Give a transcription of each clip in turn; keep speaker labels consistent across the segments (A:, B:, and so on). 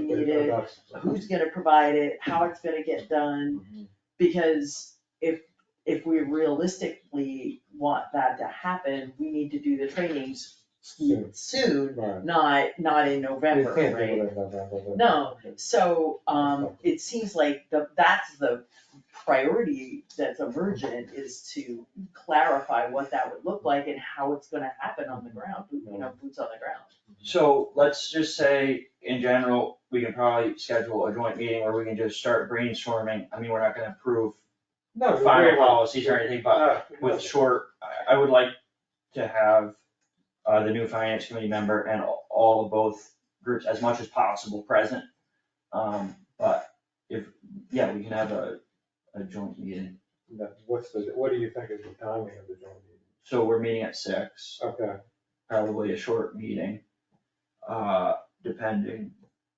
A: negotiated, who's gonna provide it, how it's gonna get done. Because if, if we realistically want that to happen, we need to do the trainings
B: Soon.
A: soon,
B: Right.
A: not, not in November,
B: We
A: right?
B: can't do it in November, but-
A: No, so, um, it seems like the, that's the priority that's emergent is to clarify what that would look like and how it's gonna happen on the ground, you know, boots on the ground.
C: So let's just say, in general, we can probably schedule a joint meeting where we can just start brainstorming, I mean, we're not gonna approve
B: No, we-
C: final
B: we-
C: policies or anything, but
B: No, we-
C: with short, I, I would like to have uh, the new finance committee member and all- all of both groups as much as possible present. Um, but if, yeah, we can have a, a joint meeting,
B: no, What's the, what do you think is the timing of the joint meeting?
C: so we're meeting at six,
B: Okay,
C: probably a short meeting, uh, depending.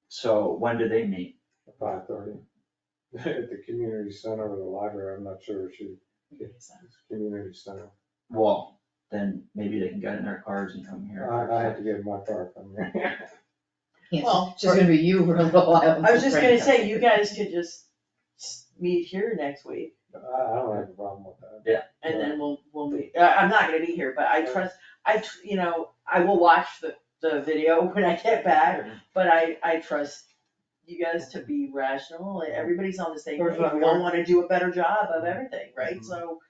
C: So when do they meet?
B: five thirty. At the community center or the library, I'm not sure, she, it's community center.
C: Well, then maybe they can get in their cars and come here.
B: I, I have to get my car from here.
A: Well,
D: Well, it's just gonna be you for a little while.
A: I was just gonna say, you guys could just s- meet here next week
B: I, I don't have a problem with that.
A: and then we'll, we'll be, I, I'm not gonna be here, but I trust, I, tr- you know, I will watch the, the video when I get back, but I, I trust you guys to be rational, and everybody's on the same
B: There's
A: page,
B: not
A: we all
B: one-
A: wanna do a better job of everything, right?
B: Mhm.
A: So,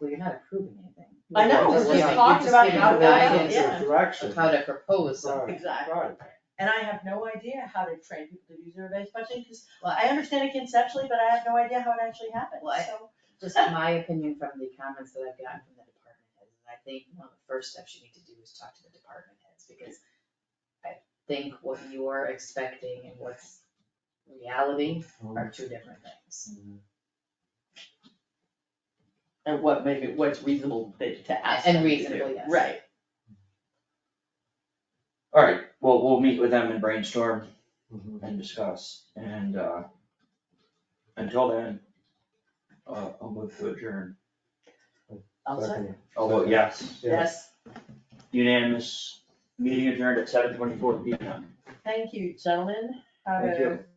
D: Well, you're not approving anything.
A: I know,
D: You're
A: we're just
D: giving-
A: talking
D: you're
A: about
D: giving
A: how
D: the
A: to-
D: guidance
A: yeah.
B: Direction.
D: of how to propose something.
B: Right,
A: Exactly.
B: right.
A: and I have no idea how to train people to do zero-based budgeting, cause I understand it conceptually, but I have no idea how it actually happens,
D: Well, I-
A: so.
D: Just my opinion from the comments that I've gotten from the department heads, and I think one of the first steps you need to do is talk to the department heads, because I think what you are expecting and what's reality are two different things.
A: And what maybe, what's reasonable to, to ask
D: And
A: them to do.
D: reasonable, yes.
A: Right,
C: Alright, well, we'll meet with them and brainstorm
B: Mhm.
C: and discuss, and, uh, until then, uh, I'll move to adjourn.
A: I'll say,
B: Second.
C: Oh, well, yes,
A: yes,
C: unanimous, meeting adjourned at seven twenty-four P M.
A: thank you, gentlemen, have
C: Thank
A: a
C: you.